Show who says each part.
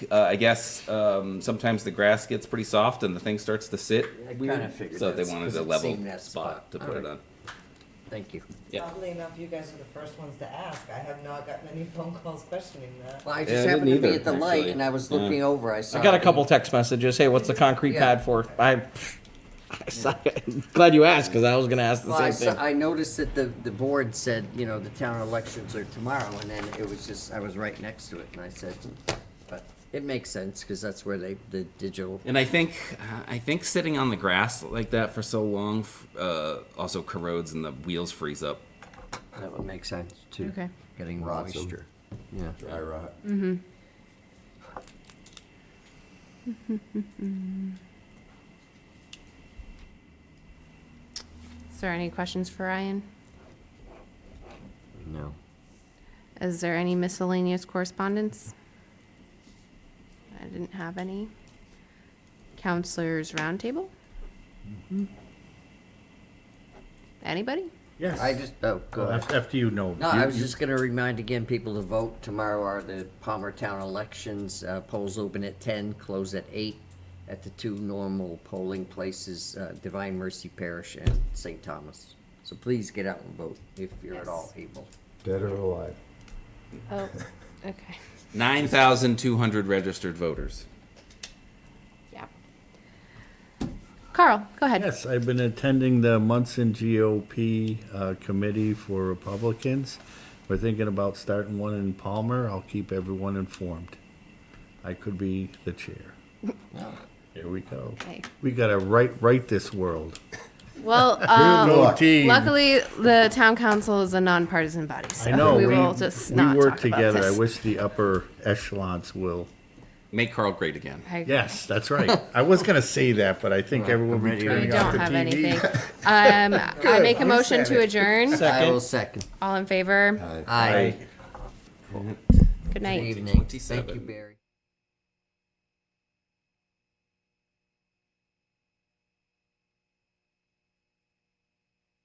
Speaker 1: uh, I guess um, sometimes the grass gets pretty soft and the thing starts to sit.
Speaker 2: I
Speaker 1: weird,
Speaker 2: kinda figured
Speaker 1: so
Speaker 2: that's
Speaker 1: they wanted
Speaker 2: 'cause
Speaker 1: a
Speaker 2: it
Speaker 1: level
Speaker 2: seemed that
Speaker 1: spot
Speaker 2: spot.
Speaker 1: to put
Speaker 2: Alright.
Speaker 1: it on.
Speaker 2: Thank you.
Speaker 1: Yeah.
Speaker 3: Oddly enough, you guys are the first ones to ask. I have not gotten any phone calls questioning that.
Speaker 2: Well, I
Speaker 1: Yeah, I
Speaker 2: just happened to
Speaker 1: didn't
Speaker 2: be
Speaker 1: either,
Speaker 2: at the light
Speaker 1: actually.
Speaker 2: and I was
Speaker 1: Yeah.
Speaker 2: looking over, I saw.
Speaker 4: I got a
Speaker 2: the-
Speaker 4: couple text messages. Hey, what's the concrete
Speaker 2: Yeah.
Speaker 4: pad for? I, I saw it. glad you asked because I was gonna ask the
Speaker 2: Well, I,
Speaker 4: same
Speaker 2: saw,
Speaker 4: thing.
Speaker 2: I noticed that the, the board said, you know, the town elections are tomorrow, and then it was just, I was right next to it, and I said, but it makes sense, because that's where they, the digital,
Speaker 1: And I think I think sitting on the grass like that for so long f- uh, also corrodes and the wheels freeze up.
Speaker 2: that would make sense, too.
Speaker 5: Okay.
Speaker 2: Getting
Speaker 6: Rots 'em.
Speaker 2: moisture. Yeah.
Speaker 6: Dry rot.
Speaker 5: Is there any questions for Ryan?
Speaker 2: No.
Speaker 5: Is there any miscellaneous correspondence? I didn't have any. Counselors roundtable?
Speaker 7: Mm-hmm.
Speaker 5: Anybody?
Speaker 7: Yes.
Speaker 2: I just, oh, go ahead.
Speaker 7: After after you know.
Speaker 2: No,
Speaker 7: You-
Speaker 2: I was
Speaker 7: you-
Speaker 2: just gonna remind again people to vote. Tomorrow are the Palmertown elections. Uh, polls open at ten, close at eight at the two normal polling places, uh, Divine Mercy Parish and St. Thomas. So please get out and vote if you're at all able.
Speaker 6: Dead or alive.
Speaker 5: Oh, okay.
Speaker 1: Nine thousand two hundred registered voters.
Speaker 5: Yeah. Carl, go ahead.
Speaker 7: Yes, I've been attending the Munson GOP uh, Committee for Republicans. We're thinking about starting one in Palmer. I'll keep everyone informed. I could be the chair. Here we go.
Speaker 5: Okay.
Speaker 7: We gotta right, right this world.
Speaker 5: Well,
Speaker 7: Go
Speaker 5: um,
Speaker 7: team.
Speaker 5: luckily, the town council is a nonpartisan body, so
Speaker 7: I know,
Speaker 5: we
Speaker 7: we,
Speaker 5: will just
Speaker 7: we
Speaker 5: not
Speaker 7: work
Speaker 5: talk about
Speaker 7: together. I
Speaker 5: this.
Speaker 7: wish the upper echelons will.
Speaker 1: Make Carl great again.
Speaker 5: I-
Speaker 7: Yes, that's right. I was gonna say that, but I think everyone will be
Speaker 5: I
Speaker 7: turning off
Speaker 5: don't
Speaker 7: the
Speaker 5: have anything.
Speaker 7: TV.
Speaker 5: Um, I make a motion to adjourn.
Speaker 2: I will second.
Speaker 5: All in favor?
Speaker 2: Uh,
Speaker 6: Aye.
Speaker 2: Aye.
Speaker 5: Good
Speaker 2: Good
Speaker 5: night.
Speaker 2: evening. Thank you,
Speaker 1: 27.
Speaker 2: Barry.